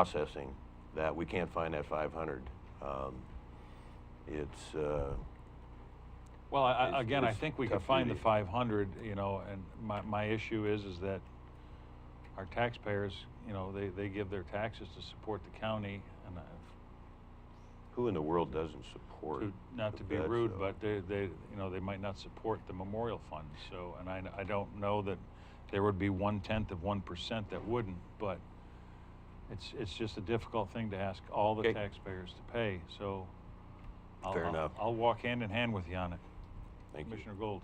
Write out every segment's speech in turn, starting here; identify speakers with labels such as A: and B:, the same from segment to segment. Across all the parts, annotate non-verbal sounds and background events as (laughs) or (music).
A: processing that. We can't find that 500. Um, it's, uh,
B: Well, I- I,
A: It's-
B: again, I
A: it's
B: think we can
A: tough
B: find the
A: duty.
B: five hundred, you know, and my, my issue is, is that our taxpayers, you know, they, they give their taxes to support the county and uh, I-
A: who in the world doesn't support?
B: to, not
A: the
B: to be
A: vets,
B: rude,
A: though?
B: but they, they, you know, they might not support the memorial fund, so, and I, I don't know that there would be one-tenth of one percent that wouldn't, but it's, it's just a difficult thing to ask all the
A: Okay.
B: taxpayers to pay, so. I'll-
A: Fair
B: I'll-
A: enough.
B: I'll walk hand in hand with you on it.
A: Thank you.
B: Commissioner Gold.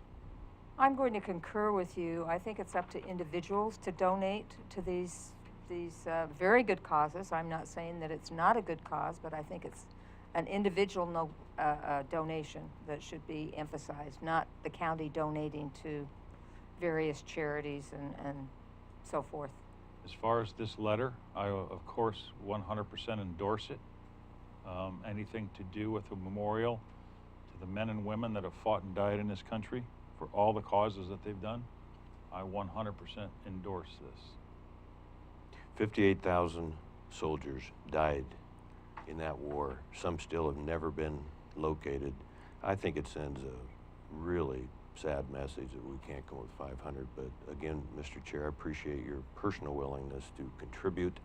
C: I'm going to concur with you. I think it's up to individuals to donate to these, these uh, very good causes. I'm not saying that it's not a good cause, but I think it's an individual no, uh, uh, donation that should be emphasized, not the county donating to various charities and, and so forth.
B: As far as this letter, I, uh, of course, 100% endorse it. Um, anything to do with a memorial to the men and women that have fought and died in this country for all the causes that they've done, I 100% endorse this.
A: 58,000 soldiers died in that war. Some still have never been located. I think it sends a really sad message that we can't come with 500. But again, Mr. Chair, I appreciate your personal willingness to contribute,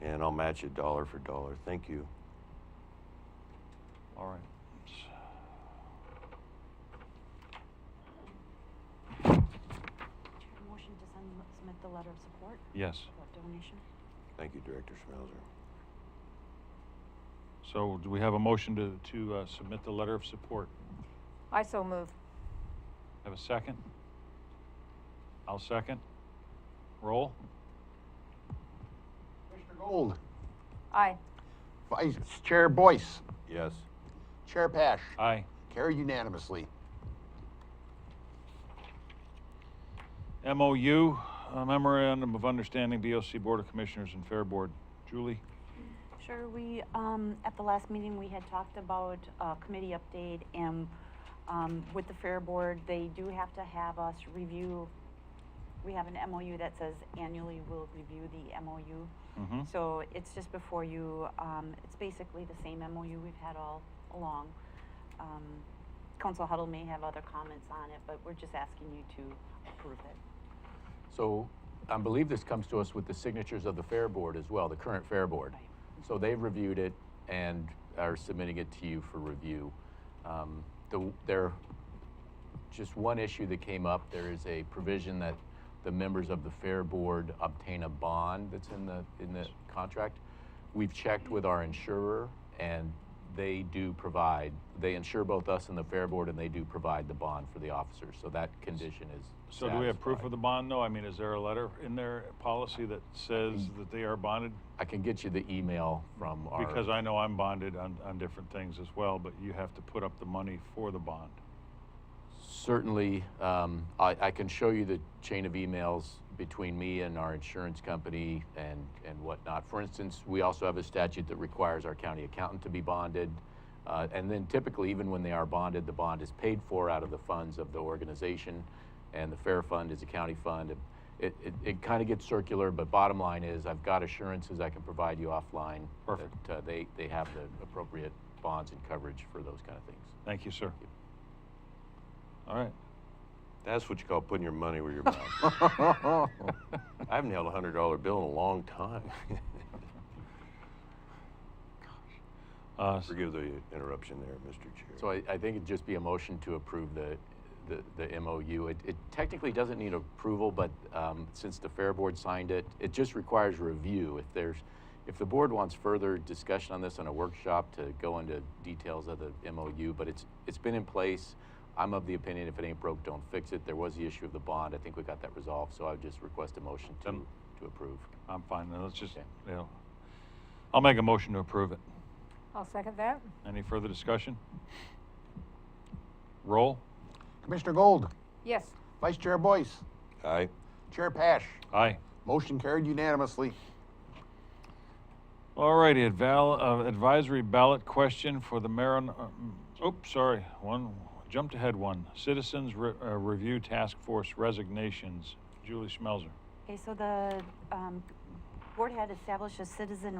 A: and I'll match it dollar for dollar. Thank you.
B: All right.
D: Chair, motion to send, submit the letter of support
B: Yes.
D: for donation.
A: Thank you, Director Schmelzer.
B: So do we have a motion to, to uh, submit the letter of support?
C: I so move.
B: Have a second? I'll second. Roll?
E: Commissioner Gold,
C: Aye.
E: Vice Chair Boyce,
A: Yes.
E: Chair Pash,
F: Uh,
B: Aye.
E: carried unanimously.
B: MOU, uh, Memorandum of Understanding, BOC Board of Commissioners and Fair Board. Julie?
D: Sure, we, um, at the last meeting, we had talked about, uh, committee update and, um, with the Fair Board, they do have to have us review. We have an MOU that says annually we'll review the MOU.
F: Mm-hmm.
B: Mhm.
D: So it's just before you, um, it's basically the same MOU we've had all along. Um, Council Huddle may have other comments on it, but we're just asking you to approve it.
F: So I believe this comes to us with the signatures of the Fair Board as well, the current Fair Board. So they've reviewed it and are submitting it to you for review. Um, the, there, just one issue that came up, there is a provision that the members of the Fair Board obtain a bond that's in the, in the contract. We've checked with our insurer and they do provide, they insure both us and the Fair Board and they do provide the bond for the officers. So that condition is
B: So do we have proof
F: satisfied.
B: of the bond, though? I mean, is there a letter in their policy that says
F: Mm.
B: that they are bonded?
F: I can get you the email from our.
B: Because I know I'm bonded on, on different things as well, but you have to put up the money for the bond.
F: Certainly, um, I, I can show you the chain of emails between me and our insurance company and, and whatnot. For instance, we also have a statute that requires our county accountant to be bonded. Uh, and then typically, even when they are bonded, the bond is paid for out of the funds of the organization. And the fair fund is a county fund. It, it, it kind of gets circular, but bottom line is I've got assurances I can provide you offline.
B: Perfect.
F: That, uh, they, they have the appropriate bonds and coverage for those kind of things.
B: Thank you, sir. All right.
A: That's what you call putting your money where your mouth is. I haven't held a $100 bill in a long time. (laughs)
B: Uh, s-
A: Forgive the interruption there, Mr. Chair.
F: So I, I think it'd just be a motion to approve the, the, the MOU. It, it technically doesn't need approval, but, um, since the Fair Board signed it, it just requires review. If there's, if the board wants further discussion on this in a workshop to go into details of the MOU, but it's, it's been in place. I'm of the opinion if it ain't broke, don't fix it. There was the issue of the bond. I think we got that resolved, so I would just request a motion to,
B: Then-
F: to approve.
B: I'm fine. Now, Let's just,
F: Okay.
B: you know, I'll make a motion to approve it.
C: I'll second that.
B: Any further discussion? Roll?
E: Commissioner Gold,
C: Yes.
E: Vice Chair Boyce,
A: Aye.
E: Chair Pash,
B: Aye.
E: motion carried unanimously.
B: All righty, adval- uh, advisory ballot question for the Marin, uh, oops, sorry, one, jumped ahead one. Citizens Re- uh, Review Task Force resignations. Julie Schmelzer.
D: Okay, so the um, board had established a citizen